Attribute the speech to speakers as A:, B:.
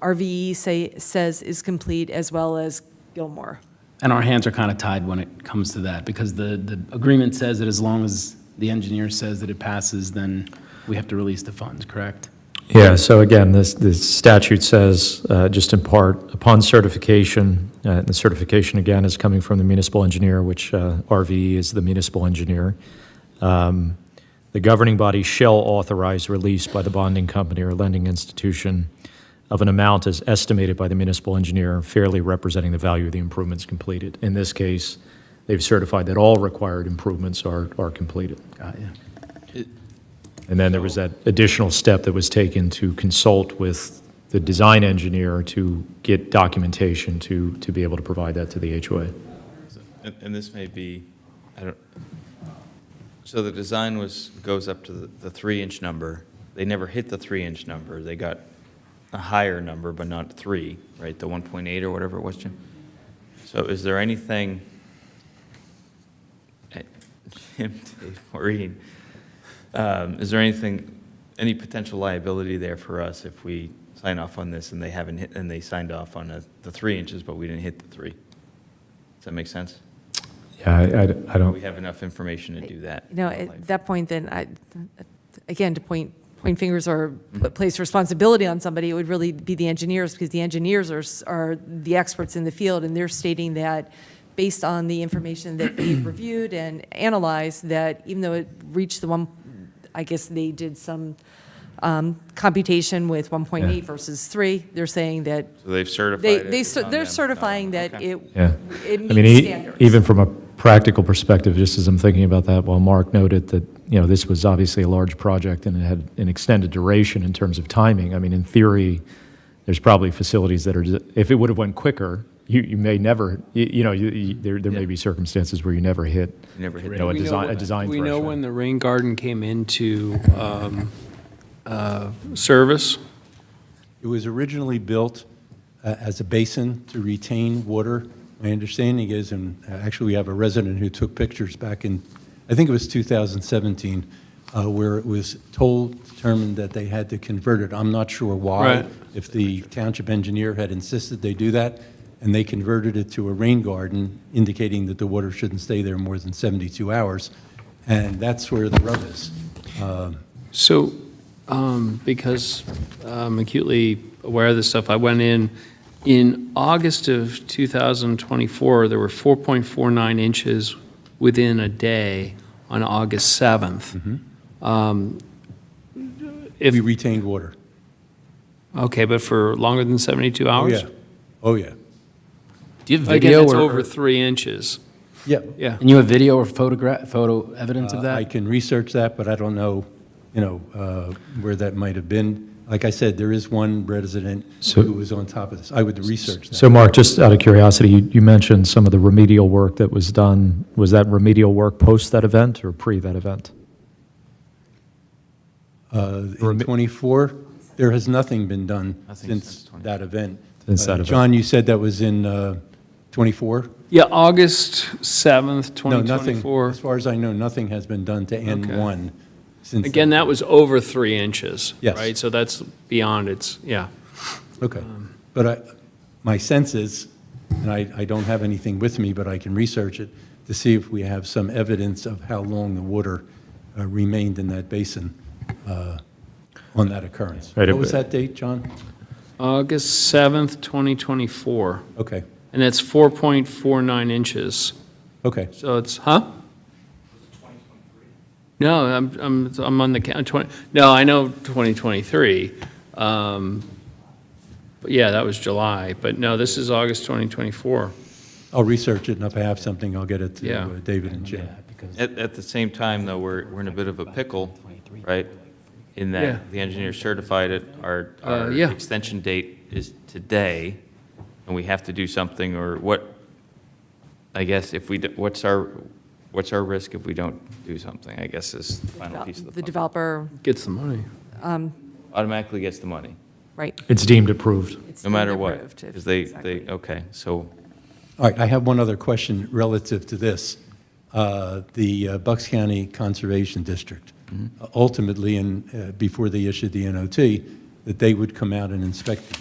A: RVE E say, says is complete, as well as Gilmore.
B: And our hands are kind of tied when it comes to that, because the, the agreement says that as long as the engineer says that it passes, then we have to release the funds, correct?
C: Yeah, so again, this, this statute says, uh, just in part, upon certification, uh, and the certification again is coming from the municipal engineer, which uh, RVE is the municipal engineer. um, The governing body shall authorize release by the bonding company or lending institution of an amount as estimated by the municipal engineer fairly representing the value of the improvements completed. In this case, they've certified that all required improvements are, are completed.
B: Got you.
C: And then there was that additional step that was taken to consult with the design engineer to get documentation to, to be able to provide that to the HOA.
D: And, and this may be, I don't, so the design was, goes up to the, the three-inch number. They never hit the three-inch number. They got a higher number, but not three, right? The one point eight or whatever it was, Jim? So is there anything? eh, Jim, Dave, Maureen, um, is there anything, any potential liability there for us if we sign off on this and they haven't hit, and they signed off on a- the three inches, but we didn't hit the three? Does that make sense?
C: Yeah, I, I- I
D: We
C: don't,
D: have enough information to do that.
A: You know, at that point, then, I, again, to point, point fingers or put- place responsibility on somebody, it would really be the engineers, because the engineers are, s- are the experts in the field, and they're stating that, based on the information that they've reviewed and analyzed, that even though it reached the one, I guess they did some um, computation with 1.8 versus 3, they're saying that
D: So they've certified
A: They,
D: it,
A: they,
D: it's
A: cer-
D: on
A: they're
D: them.
A: certifying
D: No,
A: that
D: okay.
A: it,
C: yeah.
A: it
C: I mean, e-
A: meets standards.
C: even from a practical perspective, just as I'm thinking about that, while Mark noted that, you know, this was obviously a large project and it had an extended duration in terms of timing, I mean, in theory, there's probably facilities that are, if it would have went quicker, you, you may never, you, you know, you, you, there, there may
D: Yeah.
C: be circumstances where you never hit,
D: You never hit
C: you
D: the
C: know, a
E: We know
C: design, a
E: when-
C: design
E: We
C: threshold.
E: know when the rain garden came into um, uh, service.
F: It was originally built uh, as a basin to retain water. My understanding is, and uh, actually, we have a resident who took pictures back in, I think it was 2017, uh, where it was told, determined that they had to convert it. I'm not sure why.
E: Right.
F: If the township engineer had insisted they do that, and they converted it to a rain garden, indicating that the water shouldn't stay there more than 72 hours. And that's where the rub is.
E: So, um, because I'm acutely aware of this stuff, I went in, in August of 2024, there were 4.49 inches within a day on August 7th. Um, If,
F: We retained water.
E: okay, but for longer than 72
F: Oh
E: hours?
F: yeah. Oh, yeah.
B: Do you have
E: Again,
B: video
E: it's
B: or?
E: over
B: or-
E: three inches,
F: Yeah.
E: yeah.
B: And you have video or photograph, photo evidence of
F: Uh, I
B: that?
F: can research that, but I don't know, you know, uh, where that might have been. Like I said, there is one resident
C: So-
F: who was on top of this. I would research that.
C: So Mark, just out of curiosity, you, you mentioned some of the remedial work that was done. Was that remedial work post that event or pre that event?
F: Uh, In '24, there has nothing been done
D: Nothing since
F: since
D: 24.
F: that event.
C: Since that
F: Uh,
C: event.
F: John, you said that was in uh, '24?
E: Yeah, August 7th,
F: No, nothing.
E: 2024.
F: As far as I know, nothing has been done to
E: Okay.
F: N1 since.
E: Again, that was over three inches.
F: Yes.
E: Right, so that's beyond its, yeah.
F: Okay. But I, my sense is, and I, I don't have anything with me, but I can research it to see if we have some evidence of how long the water uh, remained in that basin uh, on that occurrence.
C: Right, it
F: What was
C: wa-
F: that date, John?
E: August 7th, 2024,
F: Okay,
E: and that's 4.49 inches.
F: okay.
E: So it's, huh? No, I'm, I'm, I'm on the count, 20, no, I know 2023. Um, But yeah, that was July, but no, this is August 2024.
F: I'll research it, and if I have something, I'll get it to
E: Yeah.
F: uh, David and Jim.
D: At, at the same time, though, we're, we're in a bit of a pickle, right? In
E: Yeah.
D: that the engineer certified it, our,
E: Uh,
D: our
E: yeah.
D: extension date is today, and we have to do something, or what, I guess, if we, d- what's our, what's our risk if we don't do something, I guess, is the final piece of the
A: The
D: puzzle.
A: developer,
E: Gets the money.
D: Automatically gets the money,
A: right.
C: It's deemed approved.
A: it's
D: no matter
A: deemed
D: what.
A: approved if-
D: 'cause they,
A: exactly.
D: they, okay, so
F: All right, I have one other question relative to this. Uh, The uh, Bucks County Conservation District, ultimately, and uh, before they issued the NOT, that they would come out and inspect these.